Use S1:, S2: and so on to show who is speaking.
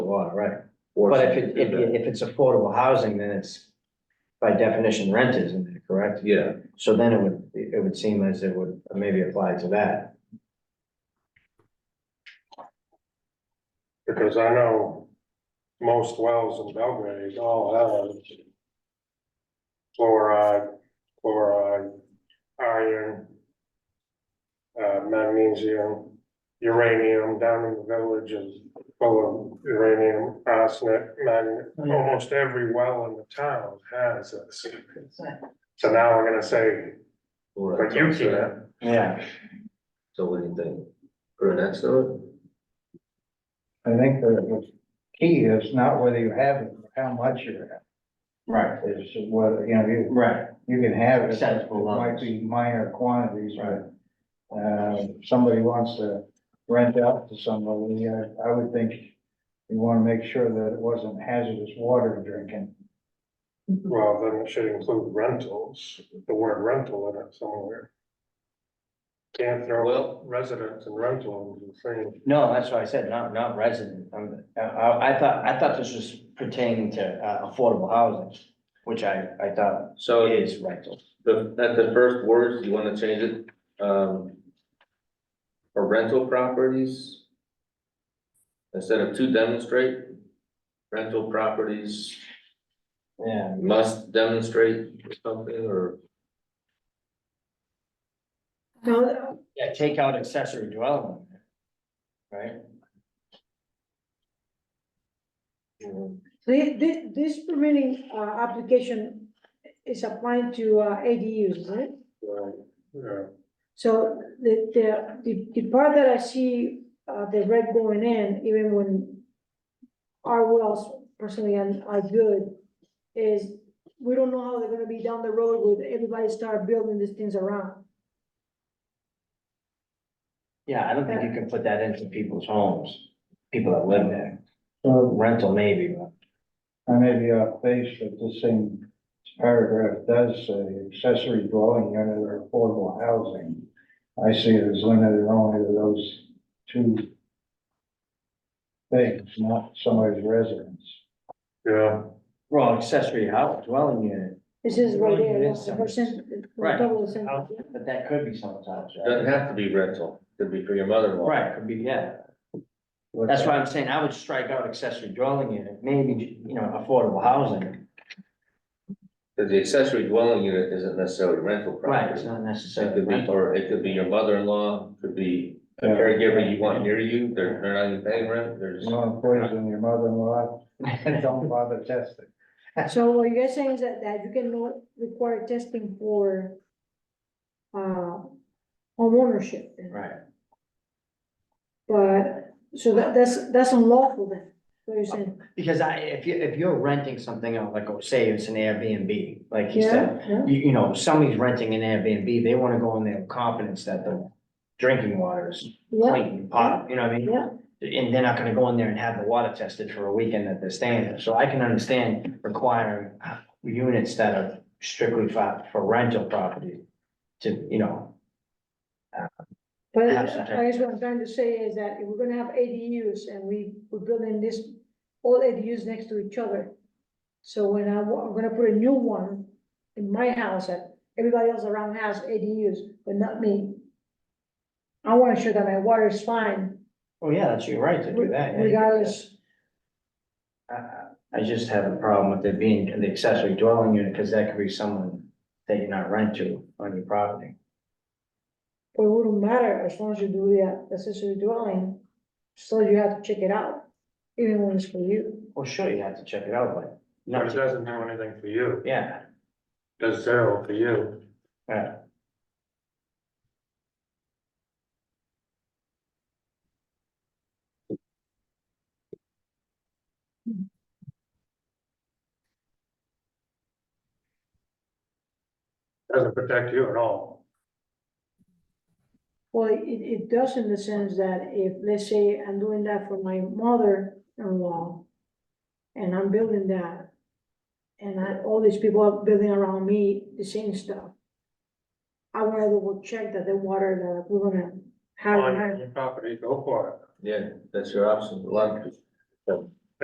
S1: water, right?
S2: or
S1: But if
S2: something
S1: it,
S2: to
S1: if,
S2: that.
S1: it- if it's affordable housing, then it's by definition rent, isn't it, correct?
S2: Yeah,
S1: So then it would, it would seem as it would maybe apply to that.
S3: Because I know most wells in Belgrade all have fluoride, chloride, iron, uh, magnesium, uranium down in the village is full of uranium, arsenic, magnet. Almost every well in the town has this. So now we're gonna say,
S2: well,
S3: but you
S2: that's what I'm saying.
S3: can't.
S1: Yeah,
S2: So what do you think? Put an X on
S4: I think the key is not whether you have it, or how much you have,
S1: right,
S4: is whether, you know, you,
S1: right.
S4: you can have it.
S1: Acceptable
S4: It Might
S1: levels.
S4: be minor quantities, but, uh, somebody wants to rent out to somebody, I, I would think you wanna make sure that it wasn't hazardous water drinking.
S3: Well, then it should include rentals, the word rental in it somewhere. Can't
S2: Well-
S3: throw residents and rental in the same,
S1: No, that's what I said, not, not resident. Um, I, I I thought, I thought this was pertaining to uh, affordable housing, which I, I
S2: it?
S1: thought
S2: So
S1: is rental.
S2: the, at the first words, you wanna change it, um. For rental properties. Instead of to demonstrate, rental properties
S1: Yeah,
S2: must demonstrate or something, or
S5: No,
S1: yeah, take out accessory dwelling. Right?
S5: the, the, this permitting, uh, application is applying to, uh, ADUs, right?
S3: right, uh, yeah.
S5: So the, the, the, the part that I see, uh, the red going in, even when our wells personally and are good, is we don't know how they're gonna be down the road with everybody start building these things around.
S1: Yeah, I don't think you can put that into people's homes, people that live there. Rental maybe, but.
S4: I may be off base, but this same paragraph does say accessory dwelling unit or affordable housing. I see it as limited only to those two things, not somebody's residence.
S3: Yeah,
S1: Well, accessory house, dwelling unit,
S5: This is right
S1: Dwelling
S5: there,
S1: unit
S5: yeah,
S1: is
S5: the percent.
S1: Right.
S5: double the sentence,
S1: House.
S5: yeah.
S1: but that could be sometimes,
S2: doesn't
S1: right?
S2: have to be rental, could be for your mother-in-law.
S1: Right, could be, yeah. That's why I'm saying I would strike out accessory dwelling unit, maybe, you know, affordable housing.
S2: Cause the accessory dwelling unit isn't necessarily rental
S1: Right,
S2: property.
S1: it's not
S2: It
S1: necessarily
S2: could be,
S1: rental.
S2: or it could be your mother-in-law, could be a
S4: Yeah.
S2: caregiver you want near you, they're, they're not even paying rent, they're
S4: You
S2: just.
S4: want to poison your mother-in-law, don't bother testing.
S5: So what you're saying is that, that you cannot require testing for, uh, homeownership, then?
S1: Right,
S5: but, so that, that's, that's unlawful then, what you're saying?
S1: because I, if you, if you're renting something out, like, oh, say it's an Airbnb, like he said,
S5: Yeah, yeah.
S1: you, you know, somebody's renting an Airbnb, they wanna go in there with confidence that the drinking water is
S5: yeah,
S1: clean pot, you know what I mean?
S5: yeah,
S1: And they're not gonna go in there and have the water tested for a weekend that they're staying there, so I can understand requiring uh, units that are strictly for, for rental property to, you know,
S5: but I
S1: Perhaps not.
S5: guess what I'm trying to say is that if we're gonna have ADUs and we, we're building this, all ADUs next to each other. So when I, wa- I'm gonna put a new one in my house, that everybody else around has ADUs, but not me. I wanna show that my water is fine,
S1: oh yeah, that's your right to do that. yeah.
S5: regardless,
S1: I- I I just have a problem with it being the accessory dwelling unit, because that could be someone that you're not rent to on your property.
S5: but it wouldn't matter as long as you do the accessory dwelling. Still, you have to check it out, even when it's for you.
S1: Well, sure, you have to check it out, but
S3: but it
S1: not,
S3: doesn't do anything for you,
S1: yeah,
S3: does zero for you.
S1: yeah,
S3: Doesn't protect you at all.
S5: Well, it, it does in the sense that if, let's say, I'm doing that for my mother-in-law, and I'm building that, and I, all these people are building around me the same stuff. I wanna double check that the water that we're gonna have,
S3: On your property, go for
S2: Yeah, that's your option, a lot of people-